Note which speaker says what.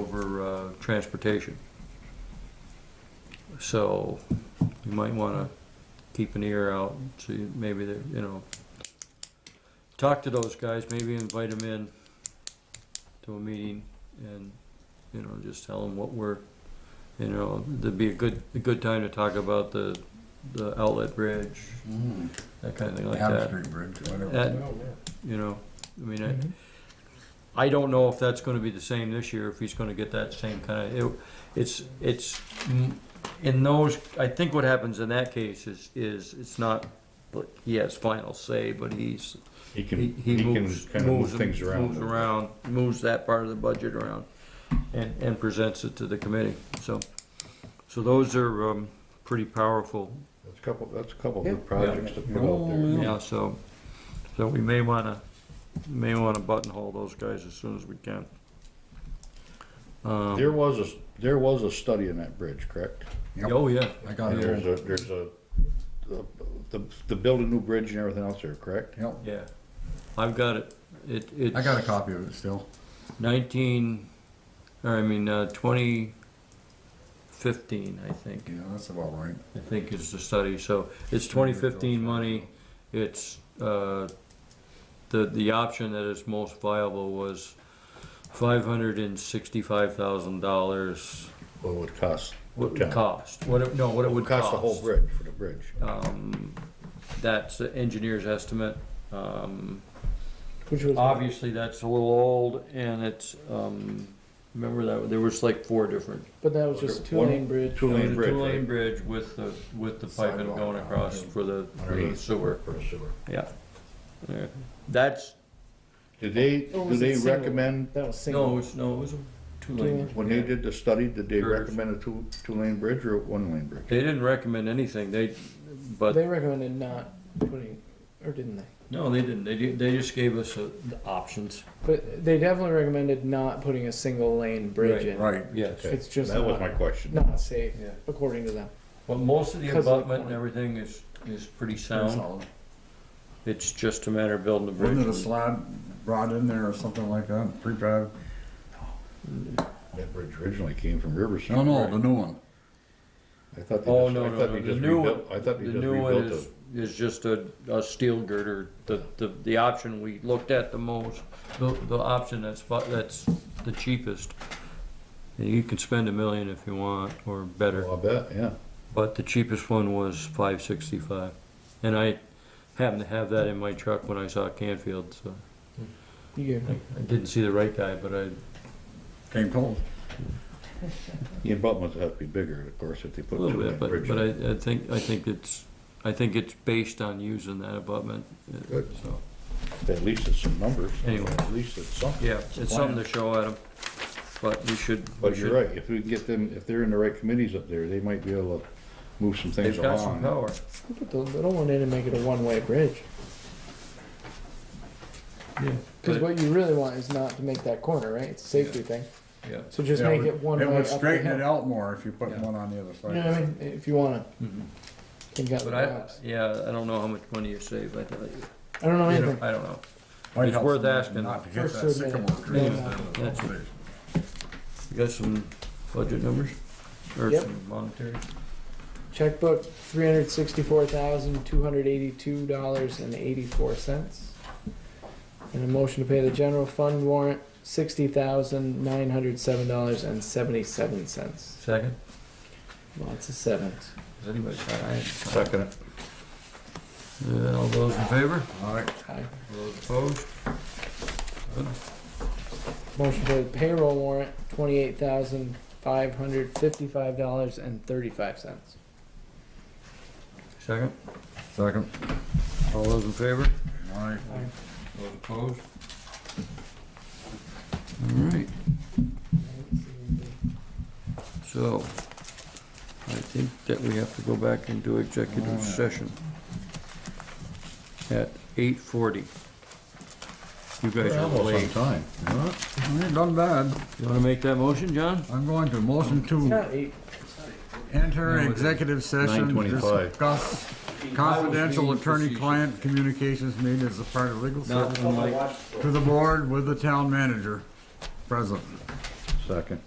Speaker 1: over uh, transportation. So you might want to keep an ear out, see maybe they're, you know, talk to those guys, maybe invite them in to a meeting and, you know, just tell them what we're, you know, there'd be a good, a good time to talk about the, the outlet bridge,
Speaker 2: Mm.
Speaker 1: that kind of thing like
Speaker 2: Down
Speaker 1: that.
Speaker 2: Street Bridge, whatever.
Speaker 1: That, you know, I mean, I, I don't know if that's gonna be the same this year, if he's gonna get that same kind of, it, it's, it's, mm, in those, I think what happens in that case is, is, it's not, like, he has final say, but he's,
Speaker 3: He
Speaker 1: he,
Speaker 3: can, he
Speaker 1: he
Speaker 3: can
Speaker 1: moves,
Speaker 3: kind of move
Speaker 1: moves, moves
Speaker 3: things around.
Speaker 1: around, moves that part of the budget around, and, and presents it to the committee, so. So those are, um, pretty powerful,
Speaker 4: That's a couple, that's a couple of
Speaker 2: Yeah.
Speaker 4: good projects to put
Speaker 2: Oh,
Speaker 4: out there.
Speaker 1: yeah, so, so we may wanna, may wanna buttonhole those guys as soon as we can. Um,
Speaker 4: There was a, there was a study in that bridge, correct?
Speaker 2: Yep.
Speaker 1: Oh, yeah.
Speaker 2: I got
Speaker 4: And
Speaker 2: it.
Speaker 4: there's a, there's a, the, the- the build a new bridge and everything else there, correct?
Speaker 2: Yep.
Speaker 1: Yeah. I've got it. It, it's.
Speaker 2: I got a copy of it still.
Speaker 1: Nineteen, or I mean, uh, twenty fifteen, I think,
Speaker 2: Yeah, that's about right.
Speaker 1: I think is the study. So it's twenty fifteen money. It's, uh, the, the option that is most viable was five hundred and sixty-five thousand dollars.
Speaker 4: What would cost?
Speaker 1: What it
Speaker 4: Yeah.
Speaker 1: would cost, what it, no, what it would cost.
Speaker 4: Cost the whole bridge, for the bridge.
Speaker 1: Um, that's the engineer's estimate. Um,
Speaker 4: Which was.
Speaker 1: Obviously, that's a little old, and it's, um, remember that, there was like four different.
Speaker 5: But that was just a
Speaker 4: One-
Speaker 5: two-lane bridge.
Speaker 4: Two
Speaker 1: It was
Speaker 4: lane
Speaker 1: a
Speaker 4: bridge,
Speaker 1: Two-lane
Speaker 4: right?
Speaker 1: bridge with the, with the piping
Speaker 2: Sidewalk.
Speaker 1: going across for the for the
Speaker 4: Underneath.
Speaker 1: sewer,
Speaker 4: For the sewer.
Speaker 1: yeah. Yeah. That's,
Speaker 4: Did they,
Speaker 5: Or
Speaker 4: do
Speaker 5: was
Speaker 4: they
Speaker 5: it single?
Speaker 4: recommend,
Speaker 5: That was single.
Speaker 1: no, it's, no, it was a two-lane.
Speaker 4: when they did the study, did they
Speaker 1: Curves.
Speaker 4: recommend a two, two lane bridge or a one lane bridge?
Speaker 1: They didn't recommend anything, they, but,
Speaker 5: They recommended not putting, or didn't they?
Speaker 1: no, they didn't, they, di- they just gave us uh, the options.
Speaker 5: But they definitely recommended not putting a single lane bridge
Speaker 1: Right.
Speaker 5: in.
Speaker 2: Right.
Speaker 1: Yes.
Speaker 5: It's just
Speaker 4: That was my
Speaker 5: not,
Speaker 4: question.
Speaker 5: not safe,
Speaker 1: Yeah.
Speaker 5: according to them.
Speaker 1: But most of the
Speaker 5: Because of the
Speaker 1: abutment and
Speaker 5: corner.
Speaker 1: everything is, is pretty
Speaker 2: Pretty
Speaker 1: sound,
Speaker 2: solid.
Speaker 1: it's just a matter of building the bridge.
Speaker 2: Wasn't it a
Speaker 1: and-
Speaker 2: slab brought in there or something like that? Prefab?
Speaker 4: That bridge originally came from Riverside.
Speaker 2: No, no, the new one.
Speaker 4: I thought they
Speaker 1: Oh,
Speaker 4: just,
Speaker 1: no,
Speaker 4: I
Speaker 1: no,
Speaker 4: thought
Speaker 1: no,
Speaker 4: they
Speaker 1: the
Speaker 4: just
Speaker 1: new
Speaker 4: rebuilt, I thought they
Speaker 1: The
Speaker 4: just
Speaker 1: new one
Speaker 4: rebuilt the.
Speaker 1: is, is just a, a steel girder, the, the, the option we looked at the most, the, the option that's, fu- that's the cheapest. And You can spend a million if you want, or better,
Speaker 4: Oh, I bet, yeah.
Speaker 1: but the cheapest one was five sixty-five. And I happened to have that in my truck when I saw Canfield, so
Speaker 5: You
Speaker 1: I, I didn't see the right guy, but I,
Speaker 2: Came close.
Speaker 4: The abutments have to be bigger, of course, if they
Speaker 1: a
Speaker 4: put
Speaker 1: little
Speaker 4: two
Speaker 1: bit,
Speaker 4: lane
Speaker 1: but,
Speaker 4: bridge.
Speaker 1: but
Speaker 4: in.
Speaker 1: I, I think, I think it's, I think it's based on using that abutment, uh,
Speaker 4: Good.
Speaker 1: so.
Speaker 4: At least it's some numbers.
Speaker 1: Anyway.
Speaker 4: At least it's something.
Speaker 1: Yeah, it's something to show at them, but we should. we
Speaker 4: But you're
Speaker 1: should-
Speaker 4: right, if we get them, if they're in the right committees up there, they might be able to move some things
Speaker 1: They've got some
Speaker 4: along.
Speaker 1: power.
Speaker 5: can put the little one in and make it a one-way bridge.
Speaker 1: Yeah.
Speaker 5: Cause what you really want is not to make that corner, right? It's a safety thing.
Speaker 1: Yeah.
Speaker 5: So just
Speaker 2: Yeah,
Speaker 5: make
Speaker 2: would-
Speaker 5: it one way
Speaker 2: It
Speaker 5: up
Speaker 2: would
Speaker 5: the
Speaker 2: straighten it
Speaker 5: hill.
Speaker 2: out more if you put
Speaker 1: Yeah.
Speaker 2: one on the other side.
Speaker 5: You know what I mean? If you wanna,
Speaker 1: Mm-hmm.
Speaker 5: think out
Speaker 1: But
Speaker 5: the
Speaker 1: I,
Speaker 5: box.
Speaker 1: yeah, I don't know how much money you save, I don't,
Speaker 5: I don't know
Speaker 1: I
Speaker 5: anything.
Speaker 1: don't know.
Speaker 2: Might
Speaker 1: It's
Speaker 2: help
Speaker 1: worth
Speaker 2: somebody
Speaker 1: asking.
Speaker 2: Not to get
Speaker 5: First
Speaker 2: that
Speaker 5: to admit
Speaker 2: sycamore
Speaker 5: it.
Speaker 2: tree.
Speaker 5: Yeah.
Speaker 2: instead of the-
Speaker 1: You got some budget numbers? Or
Speaker 5: Yep.
Speaker 1: some monetary?
Speaker 5: Checkbook, three hundred sixty-four thousand, two hundred eighty-two dollars and eighty-four cents. And a motion to pay the general fund warrant, sixty thousand, nine hundred seven dollars and seventy-seven cents.
Speaker 1: Second?
Speaker 5: Lots of sevens.
Speaker 1: Is anybody, I,
Speaker 4: Second,
Speaker 1: uh, all those in favor?
Speaker 2: All right,
Speaker 5: Aye.
Speaker 1: All those opposed? Good.
Speaker 5: Motion to pay the payroll warrant, twenty-eight thousand, five hundred fifty-five dollars and thirty-five cents.
Speaker 1: Second?
Speaker 2: second.
Speaker 1: All those in favor?
Speaker 2: All right.
Speaker 1: All those opposed? All right. So, I think that we have to go back into executive session at eight forty. You guys are
Speaker 4: almost on
Speaker 1: late.
Speaker 4: time.
Speaker 2: Well, I ain't done bad.
Speaker 1: You wanna make that motion, John?
Speaker 2: I'm going to motion to
Speaker 5: Not eight,
Speaker 2: enter
Speaker 1: No, it's
Speaker 2: executive session,
Speaker 4: 9:25.
Speaker 2: discuss confidential attorney-client communications made as a part of legal
Speaker 1: Not
Speaker 2: service
Speaker 1: unlike
Speaker 2: to the board with the town manager present.
Speaker 4: Second.